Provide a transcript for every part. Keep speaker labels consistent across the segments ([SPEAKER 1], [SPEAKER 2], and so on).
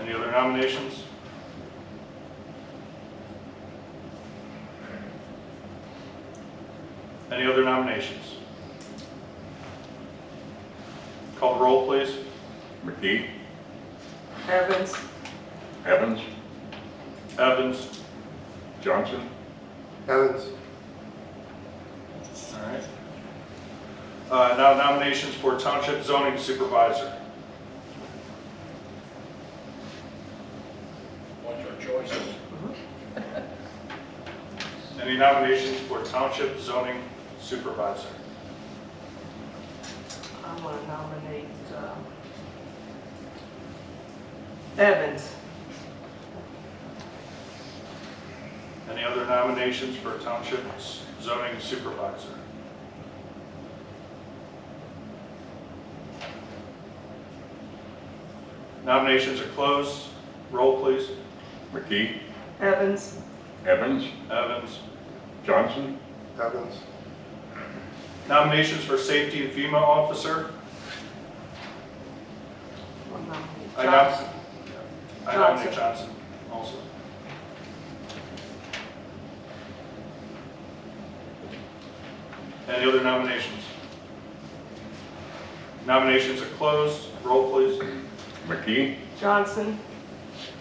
[SPEAKER 1] Any other nominations? Any other nominations? Call the roll, please.
[SPEAKER 2] McKee,
[SPEAKER 3] Evans,
[SPEAKER 2] Evans,
[SPEAKER 1] Evans?
[SPEAKER 2] Johnson,
[SPEAKER 4] Evans,
[SPEAKER 1] All right. Uh, Now nominations for Township Zoning Supervisor.
[SPEAKER 5] What's our choices?
[SPEAKER 1] Any nominations for Township Zoning Supervisor?
[SPEAKER 3] I'm going to nominate uh, Evans.
[SPEAKER 1] Any other nominations for Township Zoning Supervisor? Nominations are closed. Roll, please.
[SPEAKER 2] McKee,
[SPEAKER 3] Evans,
[SPEAKER 2] Evans,
[SPEAKER 1] Evans.
[SPEAKER 2] Johnson,
[SPEAKER 4] Evans,
[SPEAKER 1] Nominations for Safety and FEMA Officer.
[SPEAKER 3] I'll nominate
[SPEAKER 1] I
[SPEAKER 3] Johnson.
[SPEAKER 1] nom- Uh, I nominate Johnson also. Any other nominations? Nominations are closed. Roll, please.
[SPEAKER 2] McKee,
[SPEAKER 3] Johnson,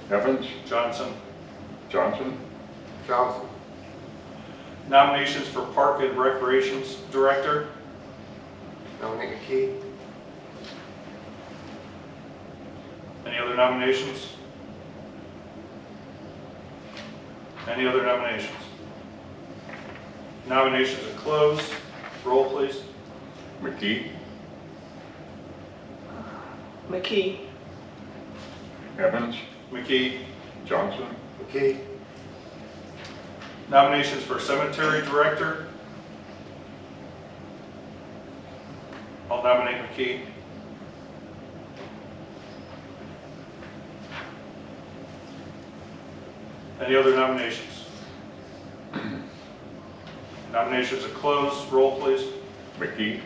[SPEAKER 2] Evans,
[SPEAKER 1] Johnson.
[SPEAKER 2] Johnson,
[SPEAKER 4] Johnson,
[SPEAKER 1] Nominations for Park and Recreations Director.
[SPEAKER 4] nominate McKee,
[SPEAKER 1] Any other nominations? Any other nominations? Nominations are closed. Roll, please.
[SPEAKER 2] McKee,
[SPEAKER 3] McKee,
[SPEAKER 2] Evans,
[SPEAKER 1] McKee.
[SPEAKER 2] Johnson,
[SPEAKER 4] McKee,
[SPEAKER 1] Nominations for Cemetery Director. I'll nominate McKee. Any other nominations? Nominations are closed. Roll, please.
[SPEAKER 2] McKee,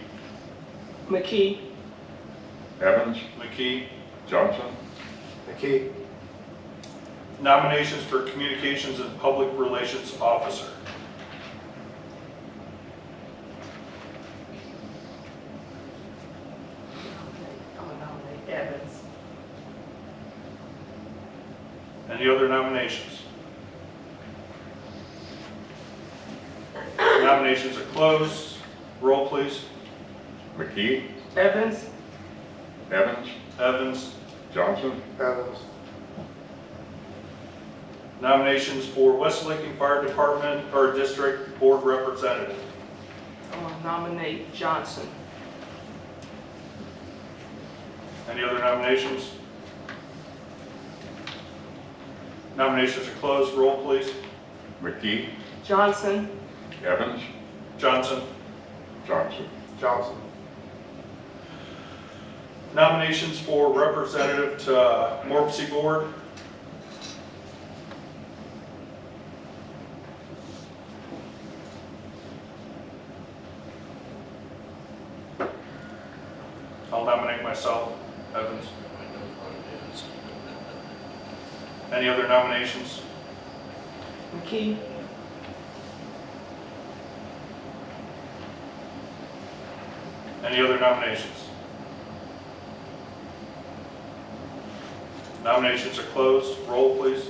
[SPEAKER 3] McKee,
[SPEAKER 2] Evans,
[SPEAKER 1] McKee.
[SPEAKER 2] Johnson,
[SPEAKER 4] McKee,
[SPEAKER 1] Nominations for Communications and Public Relations Officer.
[SPEAKER 3] I'm going to nominate Evans.
[SPEAKER 1] Any other nominations? Nominations are closed. Roll, please.
[SPEAKER 2] McKee,
[SPEAKER 3] Evans,
[SPEAKER 2] Evans,
[SPEAKER 1] Evans.
[SPEAKER 2] Johnson,
[SPEAKER 4] Evans,
[SPEAKER 1] Nominations for West Lincoln Fire Department or District Board Representative.
[SPEAKER 3] I'm going to nominate Johnson.
[SPEAKER 1] Any other nominations? Nominations are closed. Roll, please.
[SPEAKER 2] McKee,
[SPEAKER 3] Johnson,
[SPEAKER 2] Evans,
[SPEAKER 1] Johnson.
[SPEAKER 2] Johnson,
[SPEAKER 4] Johnson,
[SPEAKER 1] Nominations for Representative to uh, Morpsey Board. I'll nominate myself, Evans.
[SPEAKER 5] I know what it is.
[SPEAKER 1] Any other nominations?
[SPEAKER 3] McKee,
[SPEAKER 1] Any other nominations? Nominations are closed. Roll, please.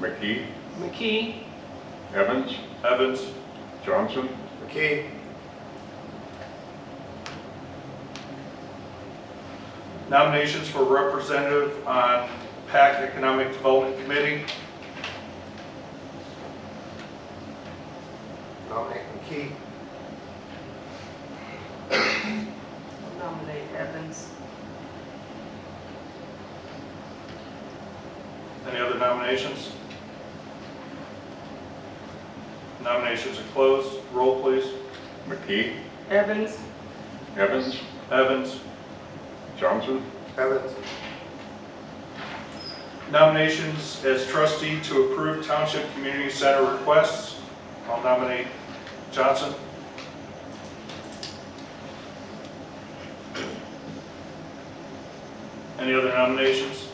[SPEAKER 2] McKee,
[SPEAKER 3] McKee,
[SPEAKER 2] Evans,
[SPEAKER 1] Evans,
[SPEAKER 2] Johnson,
[SPEAKER 4] McKee,
[SPEAKER 1] Nominations for representative on PAC Economic Development Committee.
[SPEAKER 4] nominate McKee,
[SPEAKER 3] I'll nominate Evans.
[SPEAKER 1] Any other nominations? Nominations are closed. Roll, please.
[SPEAKER 2] McKee,
[SPEAKER 3] Evans,
[SPEAKER 2] Evans,
[SPEAKER 1] Evans.
[SPEAKER 2] Johnson,
[SPEAKER 4] Evans,
[SPEAKER 1] Nominations as trustee to approve Township Community Center requests. I'll nominate Johnson. Any other nominations?